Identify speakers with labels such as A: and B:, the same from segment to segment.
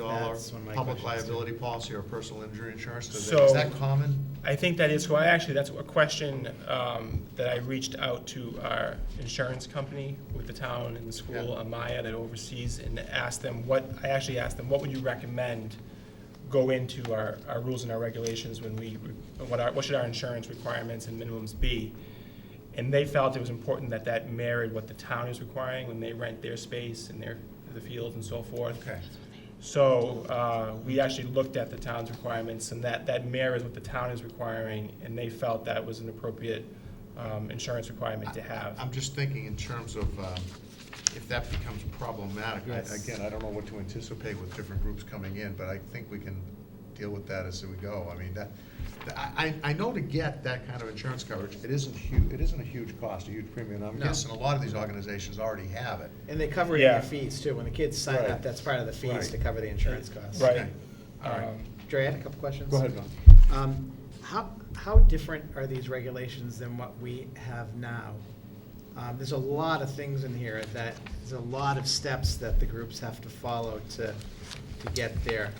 A: dollar
B: That's one of my
A: public
B: questions, too.
A: liability policy or personal injury insurance? Does that-
B: So-
A: Is that common?
B: I think that is, well, actually, that's a question um, that I reached out to our insurance company with the town and the school,
A: Yeah.
B: Amaya, that oversees, and asked them what, I actually asked them, what would you recommend go into our, our rules and our regulations when we, what our, what should our insurance requirements and minimums be? And they felt it was important that that married what the town is requiring when they rent their space and their, the fields and so forth.
A: Okay.
B: So uh, we actually looked at the town's requirements, and that, that mirrors what the town is requiring, and they felt that was an appropriate um, insurance requirement to have.
A: I'm just thinking in terms of um, if that becomes problematic. I-
B: Yes.
A: Again, I don't know what to anticipate with different groups coming in, but I think we can deal with that as we go. I mean, that, I, I I know to get that kind of insurance coverage, it isn't hu, it isn't a huge cost, a huge premium. I'm
C: No.
A: guessing a lot of these organizations already have it.
C: And they cover it in
B: Yeah.
C: their fees too. When the kids sign
A: Right.
C: up, that's part of the fees to
A: Right.
C: cover the insurance costs.
B: Right.
A: All right.
B: Um,
C: Dre, I had a couple questions.
A: Go ahead, Don.
C: Um, How, how different are these regulations than what we have now? Um, There's a lot of things in here that, there's a lot of steps that the groups have to follow to, to get there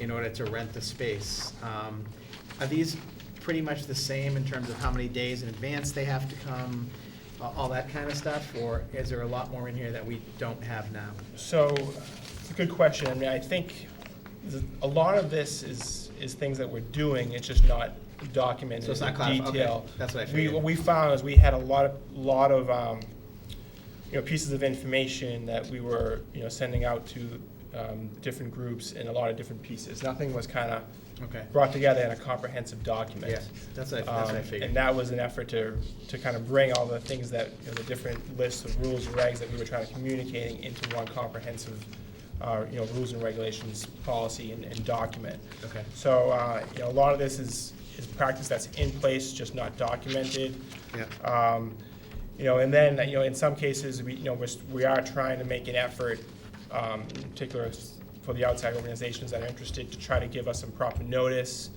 C: in order to rent the space. Um, Are these pretty much the same in terms of how many days in advance they have to come, a- all that kind of stuff? Or is there a lot more in here that we don't have now?
B: So, it's a good question. I mean, I think th- a lot of this is, is things that we're doing, it's just not documented
C: So it's not
B: in
C: codified. Okay.
B: detail.
C: That's what I
B: We,
C: figured.
B: what we found is we had a lot of, lot of, um, you know, pieces of information that we were, you know, sending out to um, different groups in a lot of different pieces. Nothing was kind of
C: Okay.
B: brought together in a comprehensive document.
C: Yeah, that's what I- that's what I
B: Um,
C: figured.
B: And that was an effort to, to kind of bring all the things that, you know, the different lists of rules and regs that we were trying to communicate into one comprehensive, uh, you know, rules and regulations, policy and, and document.
C: Okay.
B: So, uh, you know, a lot of this is, is practice that's in place, just not documented.
A: Yeah.
B: Um, You know, and then, you know, in some cases, we, you know, we're, s- we are trying to make an effort, um, in particular s- for the outside organizations that are interested, to try to give us some proper notice.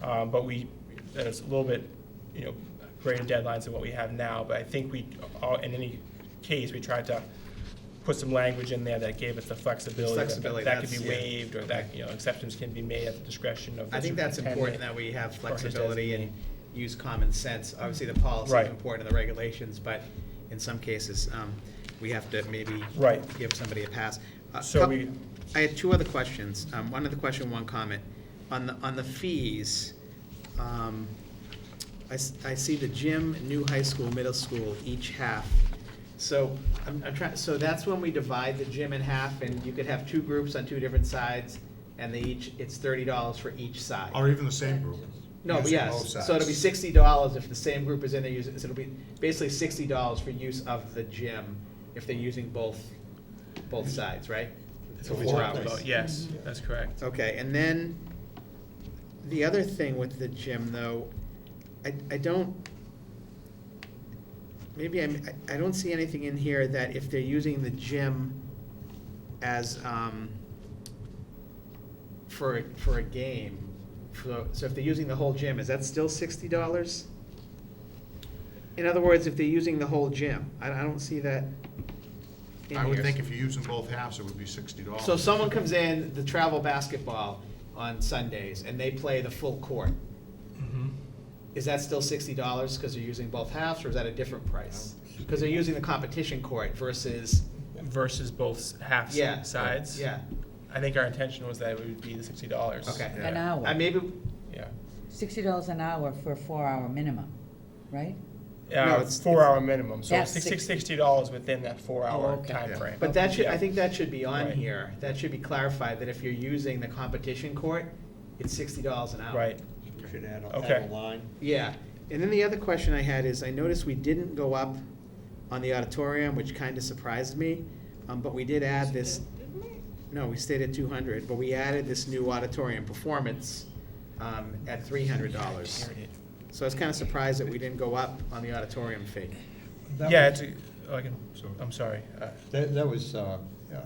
B: Um, But we, that it's a little bit, you know, greater deadlines than what we have now. But I think we, all- in any case, we tried to put some language in there that gave us the flexibility. that-
C: Flexibility,
B: That could
C: that's-
B: be
C: yeah.
B: waived, or that, you know, exceptions can be made at the discretion of the
C: I think that's important
B: superintendent.
C: that we have
B: Or his
C: flexibility and
B: designee.
C: use common sense. Obviously, the policy
B: Right.
C: is important and the regulations, but in some cases, um, we have to maybe
B: Right.
C: give somebody a pass. A
B: So
C: coup-
B: we-
C: I had two other questions. Um, One other question, one comment. On the, on the fees, um, I, s- I see the gym, new high school, middle school, each half. So I'm, I'm trying, so that's when we divide the gym in half and you could have two groups on two different sides and they each, it's thirty dollars for each side.
A: Or even the same group.
C: No, but
A: using both
C: yes,
A: sides.
C: so it'll be sixty dollars if the same group is in there using, so it'll be basically sixty dollars for use of the gym if they're using both, both sides, right?
B: That's
C: So
B: what we
C: four
B: talked
C: hours.
B: about. Yes, that's correct.
C: Okay, and then, the other thing with the gym, though, I, I don't, maybe I'm, I I don't see anything in here that if they're using the gym as, um, for, a- for a game, so, so if they're using the whole gym, is that still sixty dollars? In other words, if they're using the whole gym, I, I don't see that in
A: I would
C: here.
A: think if you're using both halves, it would be sixty dollars.
C: So someone comes in, the travel basketball on Sundays, and they play the full court. Is that still sixty dollars because they're using both halves, or is that a different price? Because they're using the competition court versus,
B: Versus both half
C: yeah.
B: sides.
C: Yeah,
B: I think our intention was that it would be the sixty dollars.
C: okay.
D: An hour.
C: I maybe,
B: Yeah.
D: Sixty dollars an hour for a four-hour minimum, right?
C: No,
B: Uh,
C: it's-
B: four hour minimum, so
D: That's
B: six,
D: six-
B: sixty dollars within that four
D: Oh,
B: hour
D: okay.
B: time frame.
C: but that should, I
B: Yeah.
C: think that should be on
B: Right.
C: here. That should be clarified, that if you're using the competition court, it's sixty dollars an hour.
B: Right,
E: You should add, a-
B: Okay.
E: add a line.
C: Yeah, and then the other question I had is, I noticed we didn't go up on the auditorium, which kind of surprised me, um, but we did add this. No, we stayed at two hundred, but we added this new auditorium performance, um, at three hundred dollars. So I was kind of surprised that we didn't go up on the auditorium fee.
E: That
B: yeah, it's,
E: was-
B: a- oh, I can, I'm sorry, uh,
E: That, that was, uh, uh,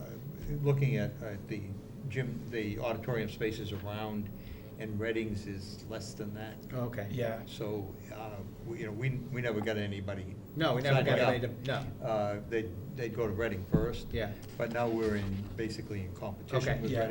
E: looking at, at the gym, the auditorium spaces around, and Reddings is less than that.
C: Oh, Okay.
B: yeah,
E: So, uh, we- you know, we, we never got anybody.
C: No, we never got
E: signing up.
C: anybody to, no,
E: Uh, they'd, they'd go to Reading first.
C: Yeah.
E: But now we're in, basically in
C: Okay.
E: competition with
B: Yeah.
E: Reading.